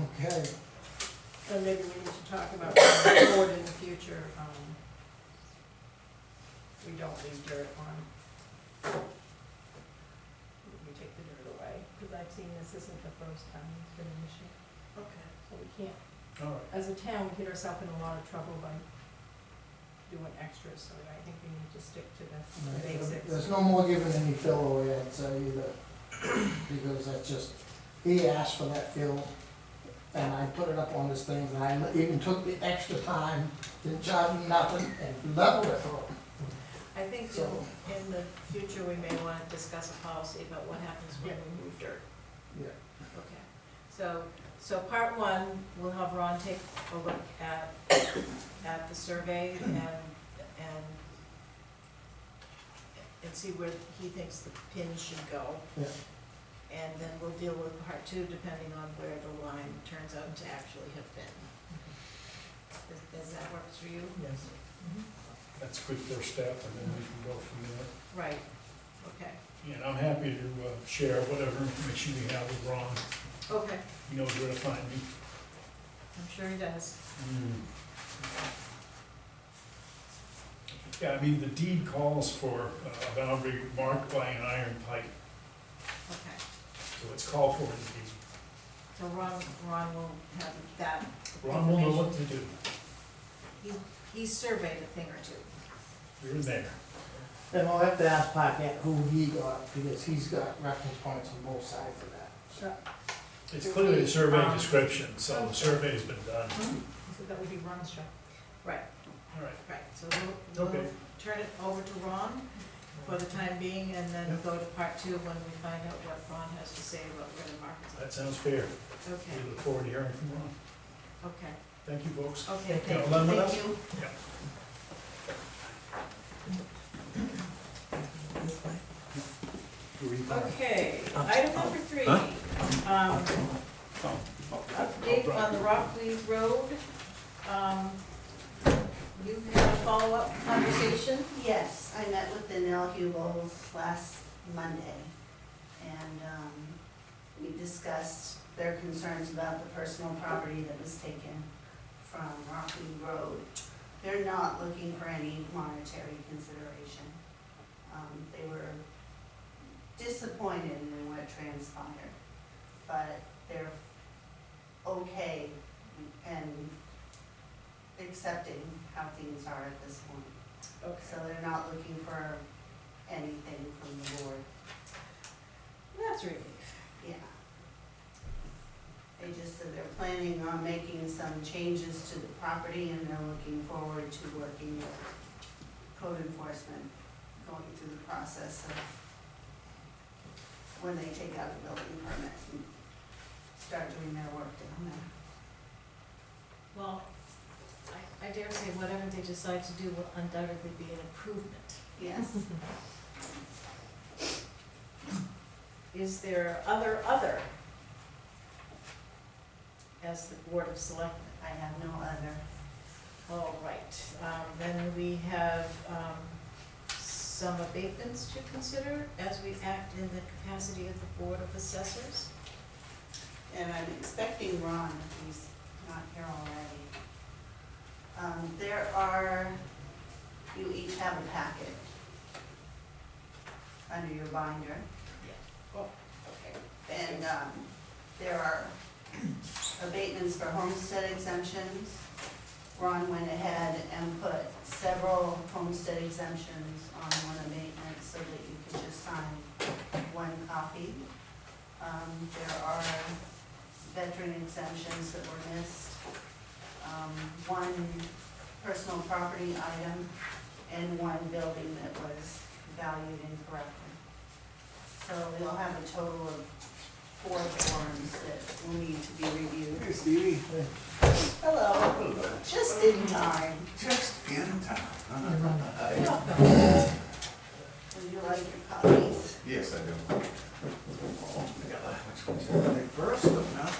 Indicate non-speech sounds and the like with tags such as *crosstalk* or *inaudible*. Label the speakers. Speaker 1: Okay,
Speaker 2: So maybe we need to talk about going forward in the future, um, we don't leave dirt on. We take the dirt away, because I've seen this isn't the first time it's been an issue,
Speaker 3: Okay.
Speaker 2: so we can't,
Speaker 1: all right.
Speaker 2: as a town, we get ourselves in a lot of trouble by doing extras, so I think we need to stick to the
Speaker 1: All
Speaker 2: the
Speaker 1: right, there-
Speaker 2: basics.
Speaker 1: There's no more giving any fill away, I'd say either, because that's just, he asked for that fill, and I put it up on this thing, and I even took the extra time, didn't charge him nothing, and leveled it for him,
Speaker 3: I think
Speaker 1: so.
Speaker 3: in, in the future, we may wanna discuss a policy about what happens when we move dirt.
Speaker 1: Yeah.
Speaker 3: Okay, so, so part one, we'll have Ron take a look at, at the survey and, and and see where he thinks the pins should go.
Speaker 1: Yeah.
Speaker 3: And then we'll deal with part two, depending on where the line turns out to actually have been. Does, does that work for you? Mm-hmm.
Speaker 1: Yes.
Speaker 4: That's a good first step, and then we can go from there.
Speaker 3: Right, okay,
Speaker 4: And I'm happy to uh, share whatever information we have with Ron,
Speaker 3: okay,
Speaker 4: he knows where to find me.
Speaker 3: I'm sure he does.
Speaker 4: Yeah, I mean, the deed calls for uh, a boundary marked by an iron pipe,
Speaker 3: Okay,
Speaker 4: so it's called for in the
Speaker 3: so Ron, Ron will have that,
Speaker 4: deed. Ron will know what to do,
Speaker 3: he, he surveyed a thing or two.
Speaker 4: you're in there.
Speaker 1: And I'll have to ask Paquette who he got, because he's got reference points on both sides of that.
Speaker 2: So,
Speaker 4: It's clearly a survey description, so the survey's been done.
Speaker 2: so that would be Ron's job.
Speaker 4: All right,
Speaker 3: Right, so we'll, we'll
Speaker 4: Okay.
Speaker 3: turn it over to Ron for the time being, and then
Speaker 4: Yep.
Speaker 3: go to part two when we find out what Ron has to say about where the market's at.
Speaker 4: that sounds fair.
Speaker 3: Okay,
Speaker 4: We look forward to hearing from Ron.
Speaker 3: okay,
Speaker 4: Thank you, folks.
Speaker 3: okay,
Speaker 4: Yeah,
Speaker 3: thank you,
Speaker 4: along with
Speaker 3: thank
Speaker 4: us?
Speaker 3: you.
Speaker 4: Yeah.
Speaker 3: Okay, item number three, um, update on the Rockland Road. Um, You had a follow-up conversation?
Speaker 5: Yes, I met with the Nell Hubels last Monday, and um, we discussed their concerns about the personal property that was taken from Rocky Road. They're not looking for any monetary consideration. Um, They were disappointed in what transpired, but they're okay and accepting how things are at this point.
Speaker 3: Oh,
Speaker 5: So they're not looking for anything from the board,
Speaker 3: That's really
Speaker 5: yeah. They just said they're planning on making some changes to the property and they're looking forward to working with code enforcement, going through the process of when they take out a building permit and start doing their work down there.
Speaker 3: Well, I, I dare say whatever they decide to do will undoubtedly be an improvement.
Speaker 5: Yes,
Speaker 3: Is there other other? As the Board of Selectmen,
Speaker 5: I have no other.
Speaker 3: all right, um, then we have, um, some abatements to consider as we act in the capacity of the Board of Assessors.
Speaker 5: and I'm expecting Ron, if he's not here already. Um, there are, you each have a packet under your binder,
Speaker 3: Okay.
Speaker 5: and, um, there are *clears throat* abatements for homestead exemptions. Ron went ahead and put several homestead exemptions on one abatement so that you could just sign one copy. Um, there are veteran exemptions that were missed. Um, one personal property item and one building that was valued incorrectly. So we'll have a total of four forms that will need to be reviewed.
Speaker 6: Hey Stevie.
Speaker 5: Hello,
Speaker 6: Hello.
Speaker 5: just in time.
Speaker 6: Just in time.
Speaker 3: Welcome.
Speaker 5: Would you like your copies?
Speaker 6: Yes, I do. Oh, I got that. Which one's the first one now?